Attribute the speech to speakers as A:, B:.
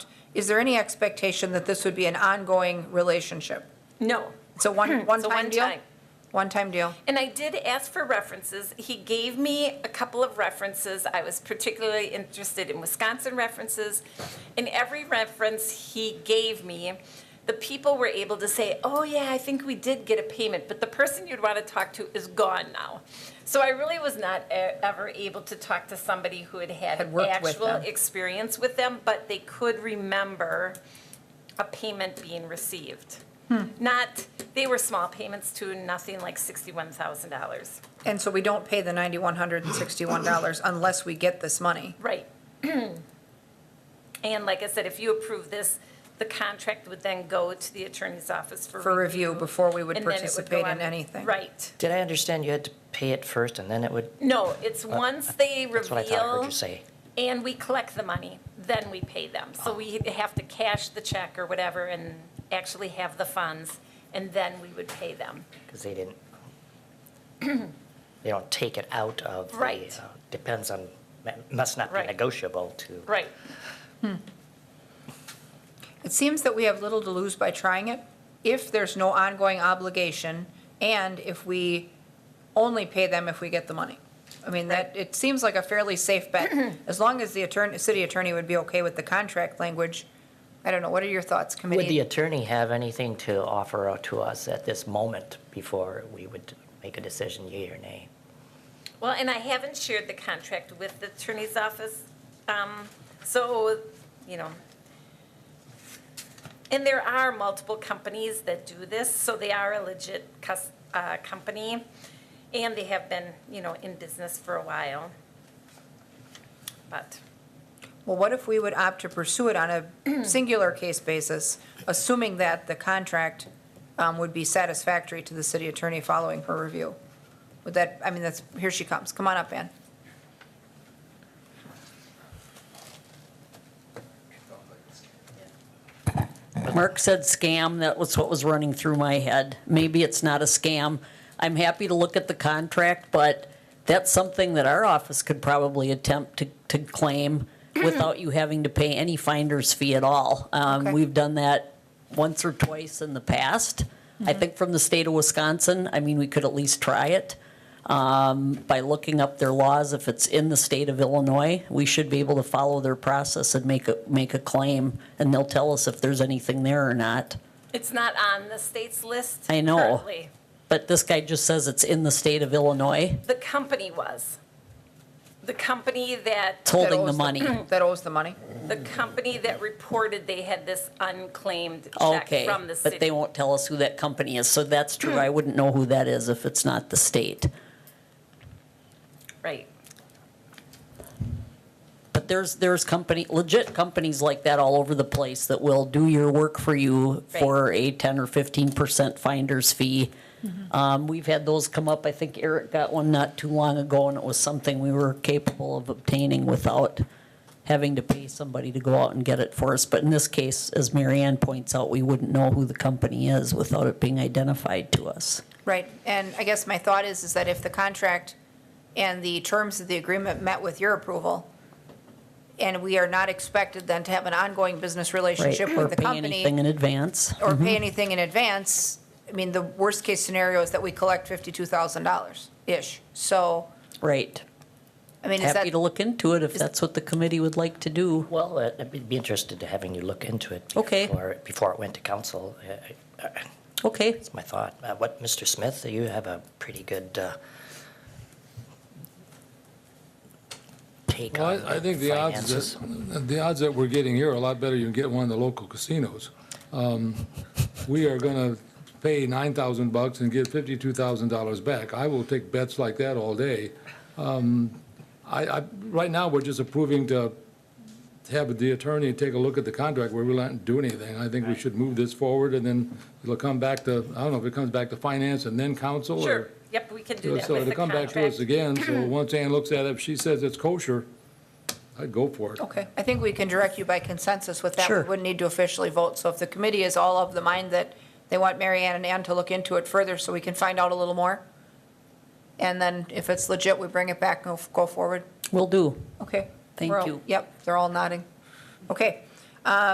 A: Is there any expectation that this would be an ongoing relationship?
B: No.
A: It's a
B: Hmm,
A: one, one-time
B: one-time.
A: deal? One-time deal?
B: And I did ask for references. He gave me a couple of references. I was particularly interested in Wisconsin references. In every reference he gave me, the people were able to say, oh, yeah, I think we did get a payment, but the person you'd want to talk to is gone now. So I really was not e- ever able to talk to somebody who had had
A: Had worked with
B: actual
A: them.
B: experience with them, but they could remember a payment being received. Not, they were small payments to nothing like $61,000.
A: And so we don't pay the $9,161 unless we get this money?
B: Right. And like I said, if you approve this, the contract would then go to the attorney's office for
A: For review before we would
B: and then it go
A: participate in
B: on-
A: anything.
B: Right.
C: Did I understand you had to pay it first and then it would,
B: No, it's once they reveal.
C: Uh, that's what I thought I heard you say.
B: And we collect the money, then we pay them. So we have to cash the check or whatever and actually have the funds, and then we would pay them.
C: Because they didn't, they don't take it out of the.
B: Right.
C: uh, Depends on, that must not be
B: Right.
C: negotiable to.
B: Right.
A: It seems that we have little to lose by trying it if there's no ongoing obligation and if we only pay them if we get the money. I mean, that, it seems like a fairly safe bet, as long as the attorney, city attorney would be okay with the contract language. I don't know, what are your thoughts,
C: Would the
A: committee?
C: attorney have anything to offer out to us at this moment before we would make a decision, yea or nay?
B: Well, and I haven't shared the contract with the attorney's office, um, so, you know. And there are multiple companies that do this, so they are a legit cus, uh, company, and they have been, you know, in business for a while. But,
A: Well, what if we would opt to pursue it on a singular case basis, assuming that the contract um, would be satisfactory to the city attorney following her review? Would that, I mean, that's, here she comes, come on up, Ann.
D: Mark said scam, that was what was running through my head. Maybe it's not a scam. I'm happy to look at the contract, but that's something that our office could probably attempt to, to claim without you having to pay any finder's fee at all.
A: Okay.
D: Um, we've done that once or twice in the past. I think from the state of Wisconsin, I mean, we could at least try it. Um, by looking up their laws, if it's in the state of Illinois, we should be able to follow their process and make a, make a claim, and they'll tell us if there's anything there or not.
B: it's not on the state's list
D: I know.
B: currently.
D: But this guy just says it's in the state of Illinois.
B: The company was. The company that
D: It's holding
A: that
D: the
A: owes
D: money.
A: That owes the money.
B: The company that reported they had this unclaimed check
D: Okay,
B: from the city.
D: but they won't tell us who that company is, so that's true. I wouldn't know who that is if it's not the state.
B: Right.
D: But there's, there's company, legit companies like that all over the place that will do your work for you
B: Right.
D: for a 10 or 15% finder's fee.
A: Mm-hmm.
D: Um, We've had those come up. I think Eric got one not too long ago, and it was something we were capable of obtaining without having to pay somebody to go out and get it for us. But in this case, as Marianne points out, we wouldn't know who the company is without it being identified to us.
A: Right, and I guess my thought is, is that if the contract and the terms of the agreement met with your approval, and we are not expected then to have an ongoing business
D: Right,
A: relationship
D: or
A: with the
D: pay anything
A: company,
D: in advance.
A: or pay anything in advance, I mean, the worst-case scenario is that we collect $52,000-ish. So,
D: Right.
A: I mean, is that,
D: Happy to look into it if that's what the committee would like to do.
C: Well, uh, I'd be interested to having you look into it.
D: Okay.
C: Before, before it went to council, Uh,
D: Okay.
C: That's my thought. Uh, What, Mr. Smith, you have a pretty good uh, take
E: Well,
C: on
E: I- I think the odds,
C: finances.
E: that the odds that we're getting here are a lot better than you get one of the local casinos. Um, We are going to pay 9,000 bucks and get $52,000 back. I will take bets like that all day. Um, I, I, right now, we're just approving to have the attorney take a look at the contract. We're really not doing anything. I think we should move this forward, and then it'll come back to, I don't know if it comes back to finance and then council, or...
B: Sure. Yep, we can do that
E: So
B: with
E: to
B: the
E: come back to us
B: contract.
E: again, so once Ann looks at it, if she says it's kosher, I'd go for it.
B: Oh,
A: okay, I think we can direct you by consensus with that. We
D: Sure.
A: wouldn't need to officially vote. So if the committee is all of the mind that they want Mary Ann and Ann to look into it further so we can find out a little more, and then if it's legit, we bring it back and go forward.
D: Will do.
A: Okay.
D: Thank
A: We're all-
D: you.
A: Yep, they're all nodding. Okay.